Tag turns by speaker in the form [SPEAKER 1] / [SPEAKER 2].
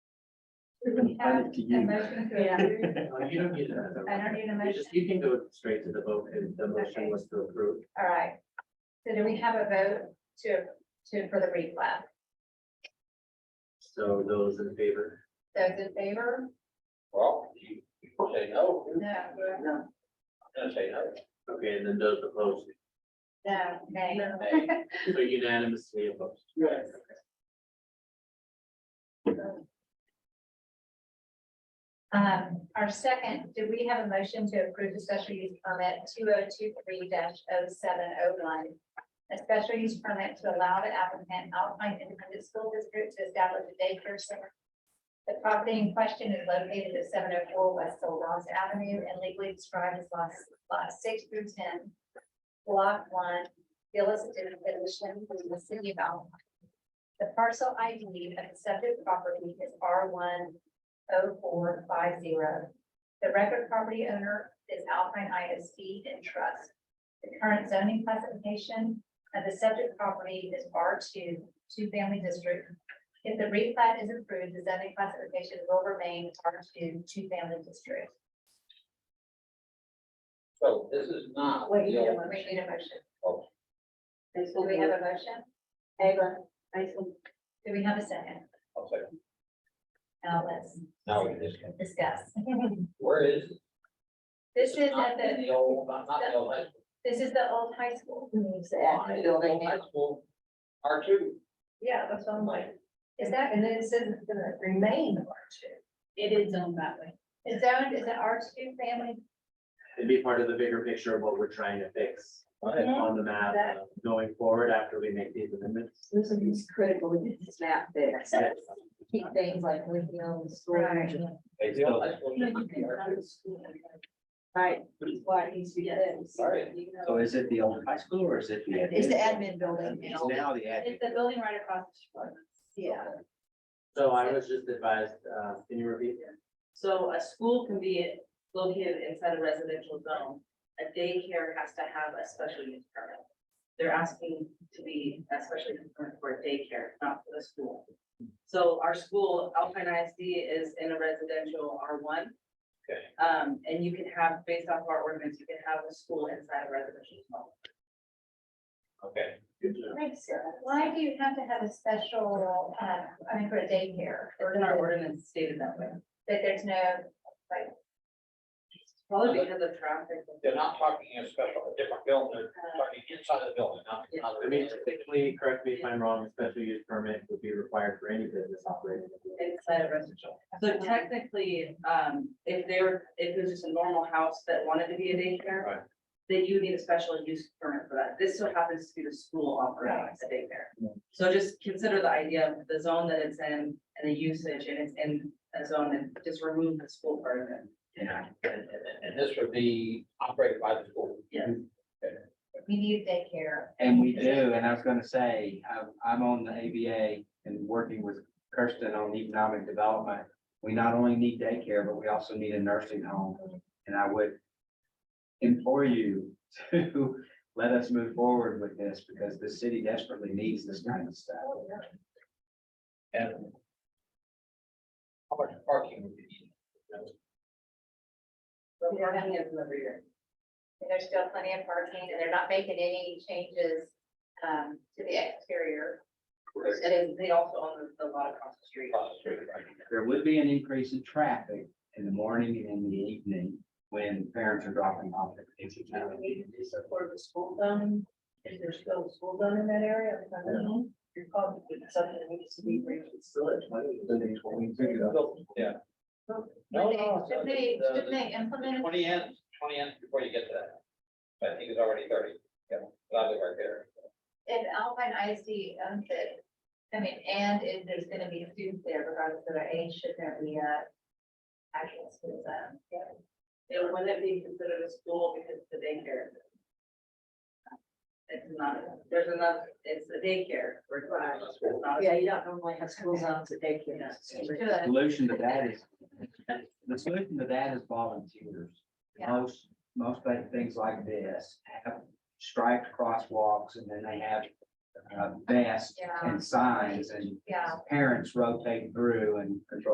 [SPEAKER 1] We have a motion to
[SPEAKER 2] Yeah.
[SPEAKER 1] approve.
[SPEAKER 3] Uh, You don't need that.
[SPEAKER 1] I don't need a
[SPEAKER 3] You
[SPEAKER 1] motion.
[SPEAKER 3] just, you can go straight to the vote if the
[SPEAKER 1] Okay.
[SPEAKER 3] motion was to approve.
[SPEAKER 1] All right. So do we have a vote to, to, for the replat?
[SPEAKER 3] So those in favor?
[SPEAKER 1] Those in favor?
[SPEAKER 4] Well, you you say no, you're
[SPEAKER 1] No, no,
[SPEAKER 4] gonna say no.
[SPEAKER 3] Okay, and then those opposed,
[SPEAKER 1] no, nay.
[SPEAKER 4] Nay.
[SPEAKER 3] so unanimously opposed.
[SPEAKER 1] Yes. Um, our second, do we have a motion to approve the special use permit two oh two three 7 oh seven oh one? A special use permit to allow the applicant Alpine Independent School District to establish a daycare center. The property in question is located at seven oh four West Solons Avenue and legally described as lots, lot six through ten. Block one, Phyllis definition from the city of Alpine. The parcel ID of the subject property is R one oh four five zero. The record property owner is Alpine ISD and Trust. The current zoning classification of the subject property is R two, two family district. If the replat is approved, the zoning classification will remain R two, two family district.
[SPEAKER 4] So this is not.
[SPEAKER 5] Wait,
[SPEAKER 4] the
[SPEAKER 5] you
[SPEAKER 4] old-
[SPEAKER 5] don't
[SPEAKER 1] We need a motion.
[SPEAKER 5] Basil
[SPEAKER 1] Do we have
[SPEAKER 5] moved,
[SPEAKER 1] a motion?
[SPEAKER 5] Ava, Basil,
[SPEAKER 1] Do we have a second?
[SPEAKER 4] I'll say,
[SPEAKER 1] Now let's
[SPEAKER 4] Now we just can,
[SPEAKER 1] discuss.
[SPEAKER 4] where is? it?
[SPEAKER 1] This is at
[SPEAKER 4] Not in
[SPEAKER 1] the,
[SPEAKER 4] the old, not the old high school.
[SPEAKER 1] this is the old high school.
[SPEAKER 5] moves the admin building
[SPEAKER 4] High
[SPEAKER 5] now.
[SPEAKER 4] school, R two,
[SPEAKER 5] Yeah, that's what I'm like.
[SPEAKER 1] Is that,
[SPEAKER 5] And then it says it's gonna remain R two.
[SPEAKER 2] It is zoned that way.
[SPEAKER 1] is zoned is an R two family?
[SPEAKER 3] It'd be part of the bigger picture of what we're trying to fix on the map uh, going forward after we make these amendments.
[SPEAKER 5] This is critical to get this map fixed.
[SPEAKER 3] Yes.
[SPEAKER 5] Keep things like with the old storage. and-
[SPEAKER 4] they do. High school used to be R two.
[SPEAKER 5] Right, why it needs to be fixed.
[SPEAKER 4] Right.
[SPEAKER 5] You know.
[SPEAKER 6] So is it the old high school or is it the?
[SPEAKER 5] It's the admin building
[SPEAKER 6] It's
[SPEAKER 5] now.
[SPEAKER 6] now the admin.
[SPEAKER 2] It's the building right across the street.
[SPEAKER 5] Yeah.
[SPEAKER 3] So I was just advised, uh, can you repeat?
[SPEAKER 7] So a school can be located inside a residential zone. A daycare has to have a special use permit. They're asking to be a special use permit for a daycare, not for the school. So our school, Alpine ISD, is in a residential R one.
[SPEAKER 4] Okay.
[SPEAKER 7] Um, and you can have, based off our ordinance, you can have a school inside a residential zone.
[SPEAKER 4] Okay,
[SPEAKER 3] Good job.
[SPEAKER 1] Why do you have to have a special, uh, I mean, for a daycare?
[SPEAKER 7] Or in our ordinance stated that way.
[SPEAKER 1] That there's no, like,
[SPEAKER 7] Probably because of traffic.
[SPEAKER 4] they're not talking in a special, a different building, they're talking inside the building, not. not the-
[SPEAKER 3] I mean, typically, correct me if I'm wrong, a special use permit would be required for any business operating.
[SPEAKER 7] Inside a residential. So technically, um, if they're, if it was just a normal house that wanted to be a
[SPEAKER 3] Right.
[SPEAKER 7] daycare, then you would need a special use permit for that. This so happens to be the school operating as a
[SPEAKER 3] Yeah.
[SPEAKER 7] daycare. So just consider the idea of the zone that it's in and the usage and it's in a zone and just remove the school part of it.
[SPEAKER 4] Yeah, and, and- and this would be operated by the school.
[SPEAKER 1] we need daycare.
[SPEAKER 6] And we do, and I was gonna say, I'm, I'm on the ABA and working with Kirsten on economic development. We not only need daycare, but we also need a nursing home, and I would implore you to let us move forward with this, because the city desperately needs this kind of stuff.
[SPEAKER 4] And how much parking would you need?
[SPEAKER 7] So parking is in the rear.
[SPEAKER 1] And There's still plenty of parking and they're not making any changes, um, to the exterior.
[SPEAKER 7] And then they also own the lot across the street.
[SPEAKER 4] Across the street, right?
[SPEAKER 6] There would be an increase in traffic in the morning and in the evening when parents are dropping off their kids. at
[SPEAKER 5] Do
[SPEAKER 6] school.
[SPEAKER 5] we need to do some sort of a school zone? Is there still a school zone in that area? I'm trying to- You're calling it something that needs to be reconsidered.
[SPEAKER 4] Yeah.
[SPEAKER 5] No,
[SPEAKER 1] Should
[SPEAKER 4] No, no.
[SPEAKER 1] they- Should they, should they implement?
[SPEAKER 4] Twenty ends, twenty ends before you get to that. I think it's already thirty, yeah, probably right there.
[SPEAKER 1] If Alpine ISD owns it, um, I mean, and if there's gonna be students there regardless of their age, should there be a actual school zone?
[SPEAKER 7] It wouldn't be considered a school because it's a daycare. It's not, there's another, it's a daycare. we're not- it's not a-
[SPEAKER 5] Yeah, you don't normally have school zones at daycare.
[SPEAKER 6] The Solution to that is, the solution to that is volunteers.
[SPEAKER 1] Yeah.
[SPEAKER 6] Most, most like things like this have striped crosswalks and then they have uh, vests
[SPEAKER 1] Yeah.
[SPEAKER 6] and signs and
[SPEAKER 1] Yeah.
[SPEAKER 6] parents rotate through and control